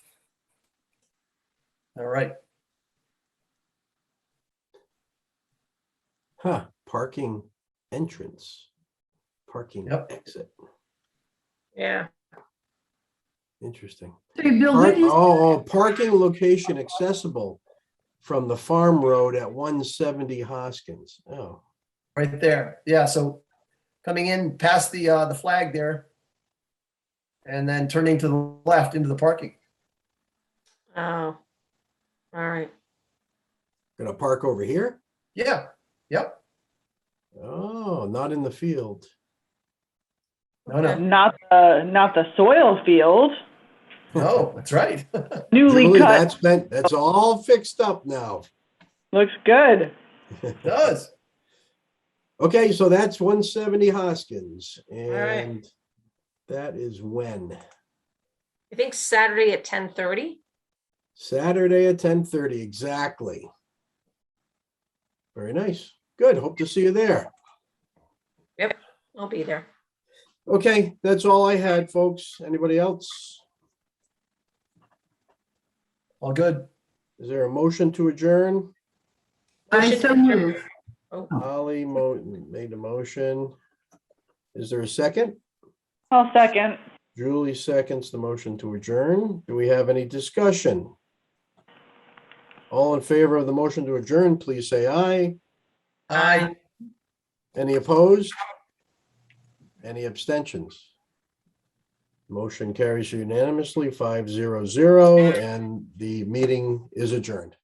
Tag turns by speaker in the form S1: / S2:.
S1: All right.
S2: Huh, parking entrance, parking
S1: Yep.
S2: exit,
S3: Yeah,
S2: interesting.
S4: Sorry, Bill,
S2: Park-
S4: what is,
S2: Oh, oh, parking location accessible from the farm road at one seventy Hoskins. Oh,
S1: Right there. Yeah, so coming in past the, uh, the flag there. And then turning to the left into the parking.
S3: oh, all right.
S2: gonna park over here?
S1: Yeah, yep.
S2: Oh, not in the field.
S1: No, no,
S5: Not the not the soil field,
S1: no, that's right.
S5: newly
S2: Julie,
S5: cut.
S2: that's been, that's all fixed up now.
S5: Looks good.
S1: It Does.
S2: Okay, so that's one seventy Hoskins
S3: right.
S2: and that is when?
S3: I think Saturday at ten thirty.
S2: Saturday at ten thirty, exactly. Very nice. Good. Hope to see you there.
S3: I'll be there.
S2: Okay, that's all I had, folks. Anybody else?
S1: All good.
S2: Is there a motion to adjourn?
S4: I so move.
S2: Holly mo- made a motion. Is there a second?
S5: I'll second.
S2: Julie seconds the motion to adjourn. Do we have any discussion? All in favor of the motion to adjourn, please say aye.
S1: I,
S2: Any opposed? Any abstentions? Motion carries unanimously, five zero zero, and the meeting is adjourned.